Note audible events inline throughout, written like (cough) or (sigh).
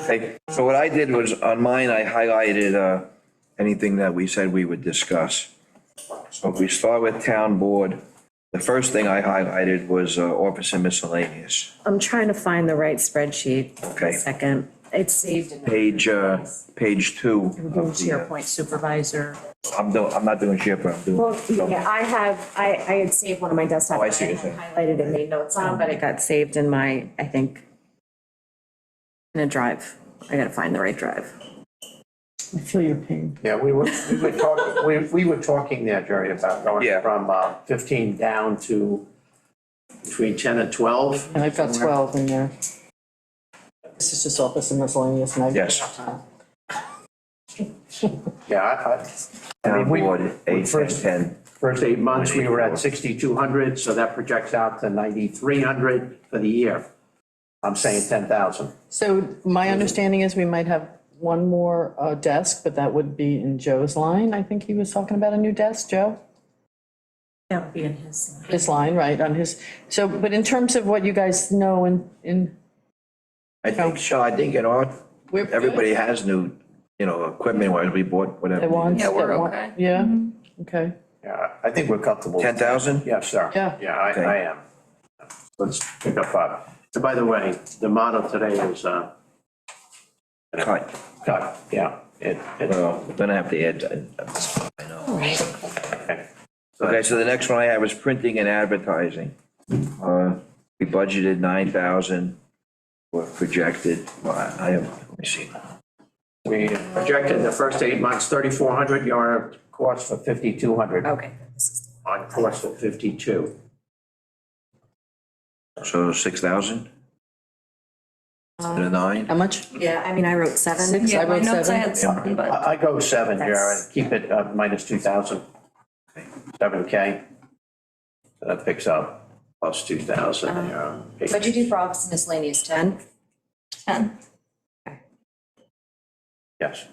Okay, so what I did was, on mine, I highlighted, uh, anything that we said we would discuss. So if we start with town board, the first thing I highlighted was, uh, office and miscellaneous. I'm trying to find the right spreadsheet. Okay. Second, it's saved in. Page, uh, page two Doing of the, uh, SharePoint supervisor. I'm doing, I'm not doing SharePoint, I'm doing. Well, yeah, I have, I, I had saved one of my desktop. Oh, I see what I you're saying. Highlighted and made notes on, but it got saved in my, I think, in a drive. I gotta find the right drive. I feel your pain. Yeah, we were, we were talking, we, we were talking there, Jerry, about Yeah. going from uh, fifteen down to between ten and twelve. And I've got twelve in there. This is just office and miscellaneous and I. Yes. Yeah, I, I. I Town mean, we- board, we eight, ten, First, ten. first eight months, we were at sixty-two hundred, so that projects out to ninety-three hundred for the year. I'm saying ten thousand. So my understanding is we might have one more uh, desk, but that would be in Joe's line. I think he was talking about a new desk, Joe? That would be in his. His line, right, on his, so, but in terms of what you guys know and, in I think so, I think in our, We're good. everybody has new, you know, equipment, where we bought whatever. they want. Yeah, we're they want- okay. Yeah, okay. Yeah, I think we're comfortable. Ten thousand? Yes, sir. Yeah. Yeah, I, Okay. I am. Let's pick up five. And by the way, the motto today is, uh, Cut, cut, yeah, it, it, well, then I have to add, that. I know. okay. Okay, so the next one I have is printing and advertising. Uh, We budgeted nine thousand, or projected, well, I I have, let me see, We projected the first eight months, thirty-four hundred, you're on course for fifty-two hundred, Okay. on course for fifty-two. so six thousand? Instead of nine? How much? Yeah, I mean, I wrote seven. Six, I Yeah, my wrote notes, I seven. had something, but I, I go seven, Jared, That's- keep it uh, minus two thousand. Seven K. That picks up plus two thousand, yeah. Uh-huh. What'd you do for office and miscellaneous, ten? ten. Yes.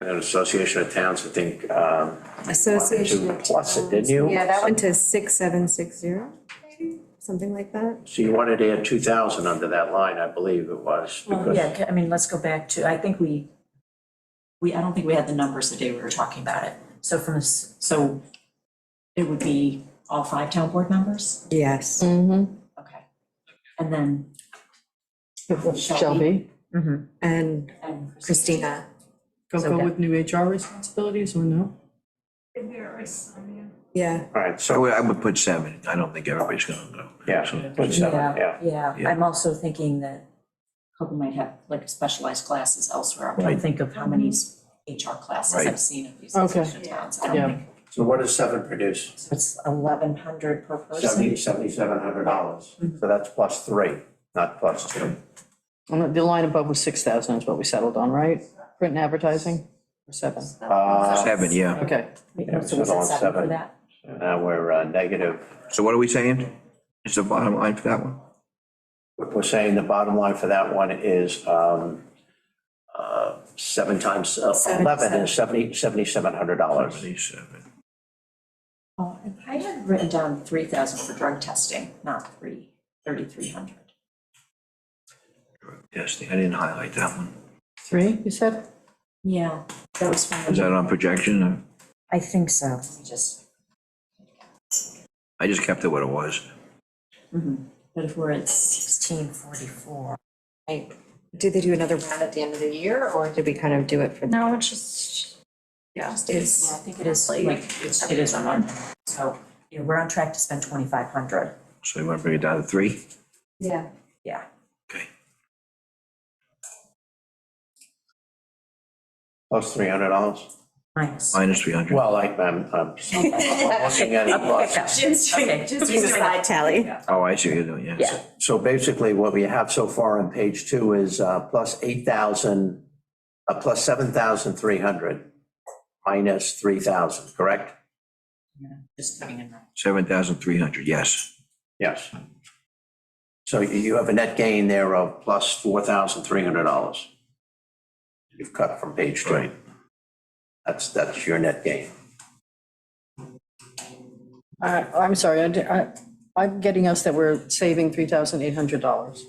And an association of towns, I think, um, Association of Plus it, Towns. didn't you? Yeah, that went to six, seven, six, zero, maybe, something like that. so you wanted to add two thousand under that line, I believe it was, Well, because Oh, yeah, ca- I mean, let's go back to, I think we, we, I don't think we had the numbers the day we were talking about it. So from, this- so it would be all five town board members? Yes. Mm-hmm. Okay. And then, Shelby. And and Christina. Go, So go that- with new HR responsibilities or no? Yeah. All right, so, So I would put seven, I don't think everybody's gonna go. yeah, So- put seven, yeah. Yeah, Yeah. I'm also thinking that Houghton might have like specialized classes elsewhere. I Right. don't think of how many s- HR classes Right. I've seen of these Okay. association towns. I Yeah. don't think, So what does seven produce? so it's eleven hundred per person. Seventy, seventy-seven hundred dollars. So that's plus three, not plus two. And the- the line above was six thousand is what we settled on, right? Print and advertising, or seven? Uh, Seven, yeah, Okay, Wait, Yeah, So so was it all seven for seven. that? Now we're uh, negative. so what are we saying? Is the bottom line for that one? We're saying the bottom line for that one is um, uh, seven times uh, Seven, eleven is seventy, seventy-seven hundred dollars. Seventy-seven. Oh, and I had written down three thousand for drug testing, not three, thirty-three hundred. Yes, I didn't highlight that one, three, you said? Yeah, that was fine. is that on projection, or- I think so. Let me just, I just kept it what it was. but if we're at sixteen forty-four. Right. Did they do another round at the end of the year, or did we kind of do it for? No, it's just, yeah, Yeah, I it's, think it is like, it's, it is a month. So, you know, we're on track to spend twenty-five hundred. So you want to bring it down to three? Yeah. Yeah. Okay. Plus three hundred dollars? Minus. Minus three hundred. Well, I, I'm, I'm looking at it plus. Just, Okay. just do a (laughs) side tally. Oh, I see what you're doing, yeah. Yeah. So basically, what we have so far on page two is uh, plus eight thousand, uh, plus seven thousand three hundred, minus three thousand, correct? Just coming in. that. Seven thousand three hundred, yes. Yes. So you- you have a net gain there of plus four thousand three hundred dollars. You've cut from page two. Right. That's, that's your net gain. Uh, I, I'm sorry, I, di- I, I'm getting us that we're saving three thousand eight hundred dollars.